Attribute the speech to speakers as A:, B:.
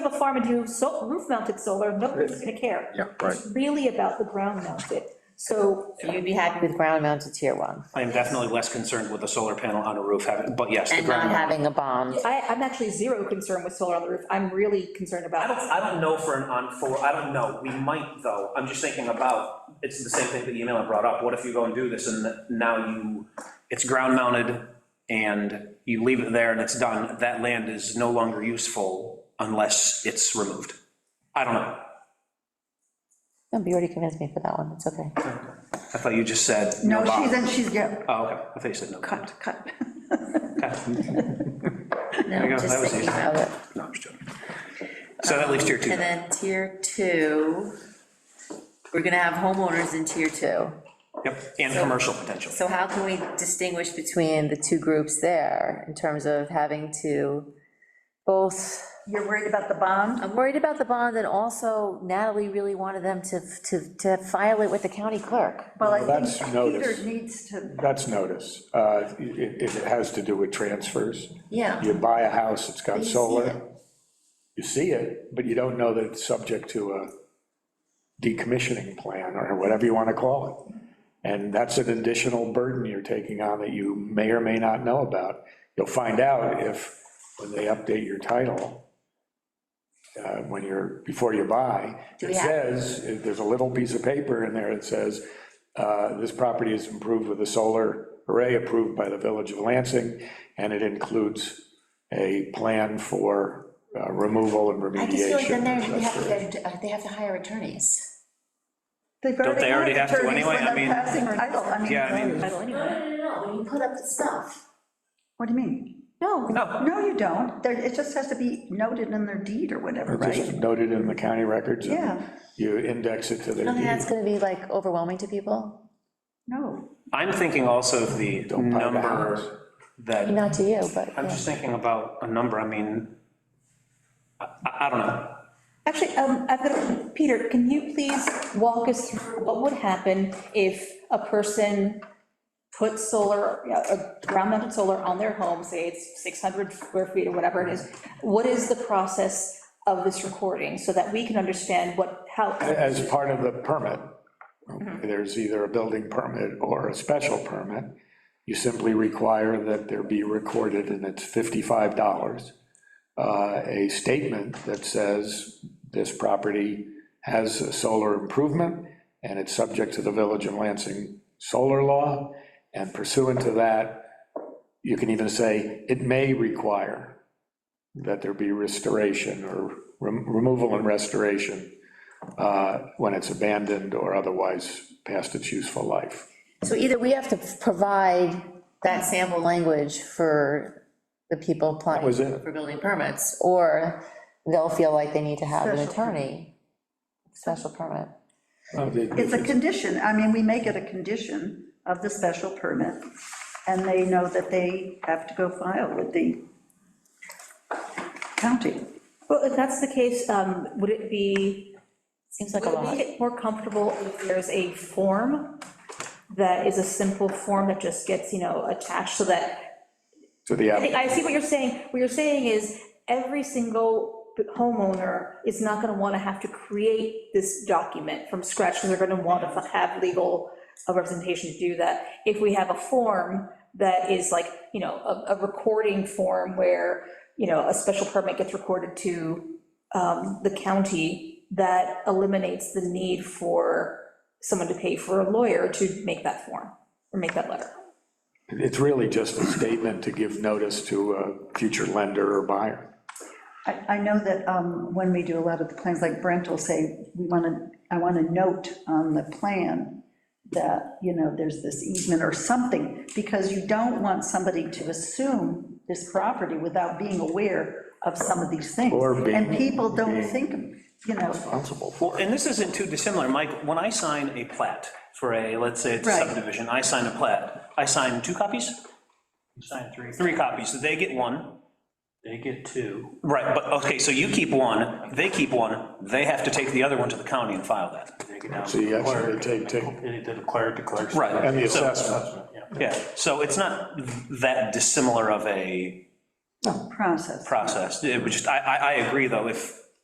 A: farm and do so- roof-mounted solar, nobody's going to care.
B: Yeah, right.
A: It's really about the ground-mounted. So
C: So You'd be happy with ground mounted tier one
D: I am definitely less concerned with a solar panel on a roof having, but yes, the
C: and not
D: ground.
C: having a bomb.
A: I, I'm actually zero concern with solar on the roof. I'm really concerned
D: I don't,
A: about,
D: I don't know for an on four, I don't know, we might though, I'm just thinking about, it's the same thing that email I brought up, what if you go and do this and now you, it's ground mounted and you leave it there and it's done, that land is no longer useful unless it's removed. I don't know,
C: No, you already convinced me for that one, it's okay.
D: I thought you just said.
E: No,
D: bond.
E: she's, and she's, get
D: Oh, okay, I thought you said no.
E: cut, cut.
D: There you go,
C: No,
D: that
C: just
D: was
C: thinking
D: easy.
C: about it.
D: No, I'm just joking. So that leaves tier two.
C: And then tier two, we're gonna have homeowners in tier two.
D: Yep, and commercial potential.
C: So how can we distinguish between the two groups there in terms of having to both,
E: You're worried about the bond?
C: I'm worried about the bond and also Natalie really wanted them to, to, to file it with the county clerk.
E: Well,
B: Well,
E: I
B: that's
E: think
B: notice.
E: Peter needs to,
B: That's notice. Uh, It, it it has to do with transfers.
C: Yeah.
B: You buy a house, it's got
C: you see
B: solar,
C: it.
B: you see it, but you don't know that it's subject to a decommissioning plan, or whatever you want to call it. And that's an additional burden you're taking on that you may or may not know about. You'll find out if, when they update your title, uh, when you're, before you buy,
C: Do we
B: it
C: have-
B: says, uh, there's a little piece of paper in there that says, uh, this property is improved with a solar array approved by the Village of Lansing, and it includes a plan for uh, removal and remediation.
C: I just feel like then
B: and
C: they're, they have to,
B: restoration.
C: get- they have to hire attorneys.
E: they've
D: Don't they already
E: already
D: have
E: had
D: to
E: attorneys
D: anyway?
E: when
D: I
E: they're
D: mean-
E: passing title, I mean.
D: Yeah, I mean-
A: title anyway.
C: no, no, when you put up the stuff.
E: What do you mean?
A: no,
E: No, you don't, there, it just has to be noted in their deed or whatever,
B: Just
E: right?
B: noted in the county records. and
E: Yeah.
B: You index it to
C: I
B: their
C: don't think that's
B: deed.
C: gonna be like overwhelming to people,
E: No,
D: I'm thinking also of the
B: Don't buy the house.
D: number that.
C: not to you, but.
D: I'm
C: yeah.
D: just thinking about a number, I mean, I, I I don't know.
A: Actually, um, I've got, Peter, can you please walk us through what would happen if a person put solar, uh, ground-mounted solar on their home, say it's 600 square feet or whatever it is? What is the process of this recording, so that we can understand what, how,
B: As part of the permit, there's either a building permit or a special permit. You simply require that there be recorded, and it's $55, uh, a statement that says this property has a solar improvement, and it's subject to the Village of Lansing solar law, and pursuant to that, you can even say, it may require that there be restoration or rem- removal and restoration uh, when it's abandoned or otherwise past its useful life.
C: So either we have to provide that sample language for the people applying.
B: That was it.
C: For building permits, or they'll feel like they need to have an
E: Special permit.
C: attorney, special permit.
B: Oh,
E: it's a condition, I mean, we make it a condition of the special permit, and they know that they have to go file with the county.
A: well, if that's the case, um, would it be,
C: Seems like
A: would
C: a
A: it
C: lot.
A: make it more comfortable if there's a form that is a simple form that just gets, you know, attached, so that
B: To the,
A: I think,
B: app-
A: I see what you're saying. What you're saying is, every single homeowner is not gonna wanna have to create this document from scratch, because they're gonna wanna have legal representation to do that. If we have a form that is like, you know, a, a recording form where, you know, a special permit gets recorded to um, the county, that eliminates the need for someone to pay for a lawyer to make that form, or make that letter.
B: it's really just a statement to give notice to a future lender or buyer.
E: I, I know that um, when we do a lot of the plans, like Brent will say, we want to, I want to note on the plan that, you know, there's this easement or something, because you don't want somebody to assume this property without being aware of some of these things.
B: Or being-
E: And people don't
B: being-
E: think, you know,
B: Responsible
D: Well,
B: for it.
D: and this isn't too dissimilar, Mike, when I sign a plat for a, let's say it's a
E: Right.
D: subdivision, I sign a plat, I sign two copies? You Sign three. Three copies, they get one. They get two. Right, but, okay, so you keep one, they keep one, they have to take the other one to the county and file that.
B: So you actually take, take,
F: The clerk declares.
D: Right.
B: and the
D: so-
B: assessment.
D: Yeah, so it's not that dissimilar of a
E: process.
D: process. It would just, I, I, I agree, though, if,